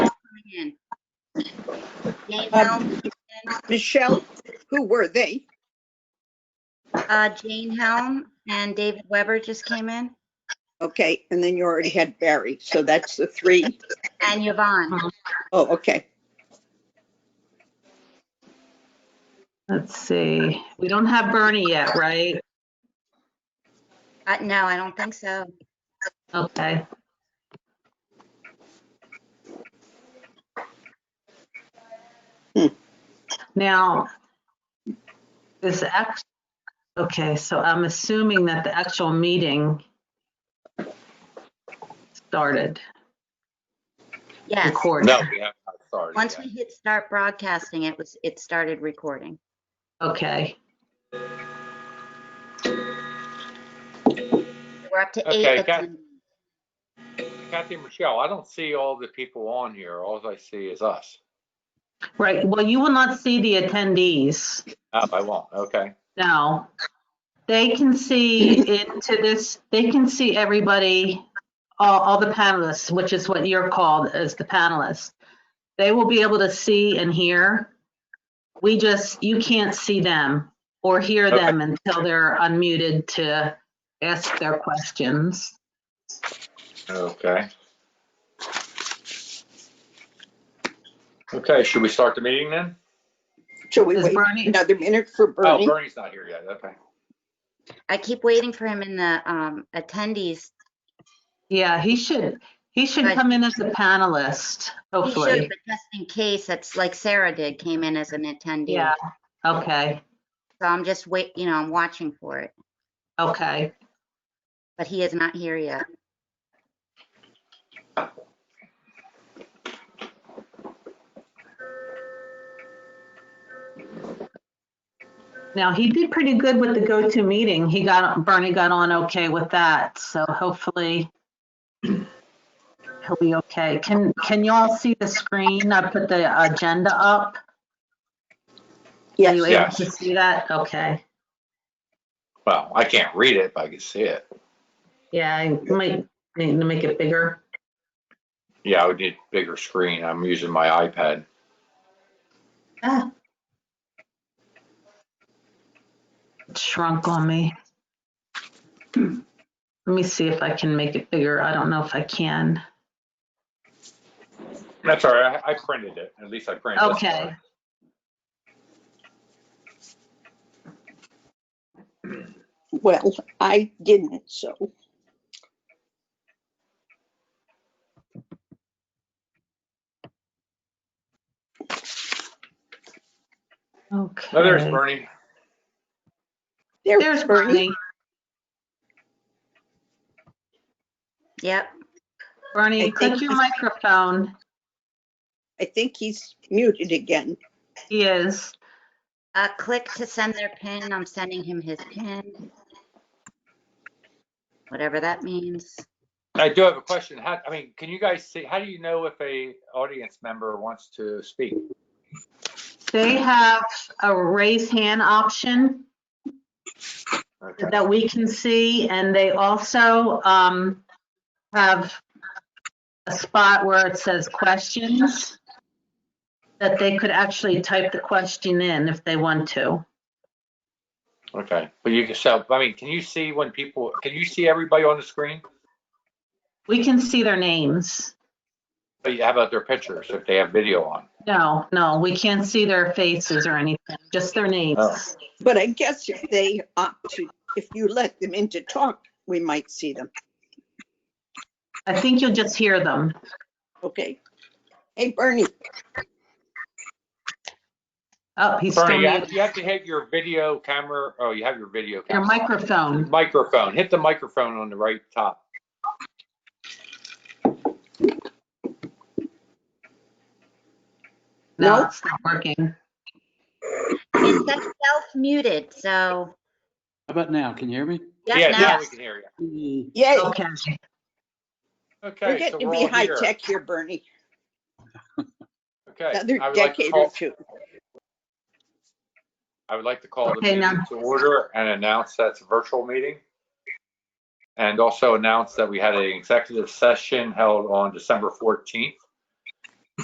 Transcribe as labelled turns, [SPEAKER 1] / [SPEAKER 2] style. [SPEAKER 1] Jane
[SPEAKER 2] Um,
[SPEAKER 1] Helms,
[SPEAKER 2] Michelle, who were they?
[SPEAKER 1] uh, Jane Helm and David Weber just came in,
[SPEAKER 2] Okay, and then you already had Barry, so that's the three.
[SPEAKER 1] and Yvonne.
[SPEAKER 2] Oh, okay.
[SPEAKER 3] Let's see, we don't have Bernie yet, right?
[SPEAKER 1] Uh, No, I don't think so.
[SPEAKER 3] Okay.
[SPEAKER 2] Hmm.
[SPEAKER 3] Now, this, act- okay, so I'm assuming that the actual meeting started,
[SPEAKER 1] Yes.
[SPEAKER 3] recorded.
[SPEAKER 4] No, we have not started.
[SPEAKER 1] Once
[SPEAKER 4] yet.
[SPEAKER 1] we hit start broadcasting, it was, it started recording.
[SPEAKER 3] Okay,
[SPEAKER 1] We're up to
[SPEAKER 4] Okay,
[SPEAKER 1] eight.
[SPEAKER 4] got-
[SPEAKER 1] attendants.
[SPEAKER 4] Kathy, Michelle, I don't see all the people on here. All I see is us.
[SPEAKER 3] right, well, you will not see the attendees.
[SPEAKER 4] Oh, I won't. Okay.
[SPEAKER 3] No. They can see into this, they can see everybody, all, all the panelists, which is what you're called as the panelists. They will be able to see and hear. We just, you can't see them or hear
[SPEAKER 4] Okay.
[SPEAKER 3] them until they're unmuted to ask their questions.
[SPEAKER 4] Okay. Okay, should we start the meeting then?
[SPEAKER 2] Shall we
[SPEAKER 3] Is
[SPEAKER 2] wait
[SPEAKER 3] Bernie,
[SPEAKER 2] another minute for
[SPEAKER 4] Oh,
[SPEAKER 2] Bernie?
[SPEAKER 4] Bernie's not here yet. Okay.
[SPEAKER 1] I keep waiting for him in the um, attendees.
[SPEAKER 3] yeah, he should, he should
[SPEAKER 1] Right.
[SPEAKER 3] come in as a panelist,
[SPEAKER 1] He should,
[SPEAKER 3] hopefully.
[SPEAKER 1] but just in case, it's like Sarah did, came in as an attendee.
[SPEAKER 3] Yeah, okay,
[SPEAKER 1] So I'm just wait, you know, I'm watching for it,
[SPEAKER 3] okay.
[SPEAKER 1] but he is not here yet.
[SPEAKER 3] Now, he did pretty good with the go-to meeting. He got, Bernie got on okay with that, so hopefully he'll be okay. Can, can y'all see the screen? I put the agenda up. Are
[SPEAKER 2] Yes,
[SPEAKER 3] you able
[SPEAKER 4] Yes.
[SPEAKER 3] to see that? Okay.
[SPEAKER 4] Well, I can't read it, but I can see it.
[SPEAKER 3] Yeah, I might need to make it bigger.
[SPEAKER 4] Yeah, I would need bigger screen. I'm using my iPad.
[SPEAKER 3] Ah. It Shrunk on me. Let me see if I can make it bigger. I don't know if I can.
[SPEAKER 4] That's all right. I I printed it. At least I printed it.
[SPEAKER 3] Okay.
[SPEAKER 2] well, I didn't, so.
[SPEAKER 3] Okay.
[SPEAKER 4] No, Oh, there's Bernie.
[SPEAKER 3] There's Bernie.
[SPEAKER 1] Yep.
[SPEAKER 3] Bernie,
[SPEAKER 2] I
[SPEAKER 3] click
[SPEAKER 2] think-
[SPEAKER 3] your microphone.
[SPEAKER 2] I think he's muted again.
[SPEAKER 3] He is.
[SPEAKER 1] Uh, click to send their pin. I'm sending him his pin. Whatever that means.
[SPEAKER 4] I do have a question. How, I mean, can you guys see, how do you know if a audience member wants to speak?
[SPEAKER 3] They have a raise hand option
[SPEAKER 4] Okay.
[SPEAKER 3] that we can see, and they also um, have a spot where it says questions that they could actually type the question in if they want to.
[SPEAKER 4] Okay, but you can, so, I mean, can you see when people, can you see everybody on the screen?
[SPEAKER 3] We can see their names.
[SPEAKER 4] But you- How about their pictures, if they have video on?
[SPEAKER 3] No, no, we can't see their faces or anything, just their names.
[SPEAKER 2] But I guess if they opt to, if you let them in to talk, we might see them.
[SPEAKER 3] I think you'll just hear them.
[SPEAKER 2] Okay. Hey, Bernie,
[SPEAKER 3] Oh, he's still
[SPEAKER 4] Bernie, you have,
[SPEAKER 3] muted.
[SPEAKER 4] you have to hit your video camera, oh, you have your video
[SPEAKER 3] Your
[SPEAKER 4] camera.
[SPEAKER 3] microphone.
[SPEAKER 4] Microphone, hit the microphone on the right top.
[SPEAKER 3] No,
[SPEAKER 2] No?
[SPEAKER 3] it's not working.
[SPEAKER 1] I mean, that's self-muted, so.
[SPEAKER 5] How about now? Can you hear me?
[SPEAKER 1] Yep,
[SPEAKER 4] Yeah,
[SPEAKER 1] now-
[SPEAKER 4] now we can hear you.
[SPEAKER 5] Mm,
[SPEAKER 2] yay,
[SPEAKER 3] Okay,
[SPEAKER 2] we're
[SPEAKER 4] Okay, so
[SPEAKER 2] getting to
[SPEAKER 4] we're
[SPEAKER 2] be
[SPEAKER 4] all
[SPEAKER 2] high
[SPEAKER 4] here.
[SPEAKER 2] tech here, Bernie,
[SPEAKER 4] Okay,
[SPEAKER 2] another
[SPEAKER 4] I would like to
[SPEAKER 2] decade or
[SPEAKER 4] call,
[SPEAKER 2] two.
[SPEAKER 4] I would like to call the
[SPEAKER 3] Okay,
[SPEAKER 4] meeting
[SPEAKER 3] now.
[SPEAKER 4] to order and announce that's a virtual meeting. And also announce that we had an executive session held on December 14th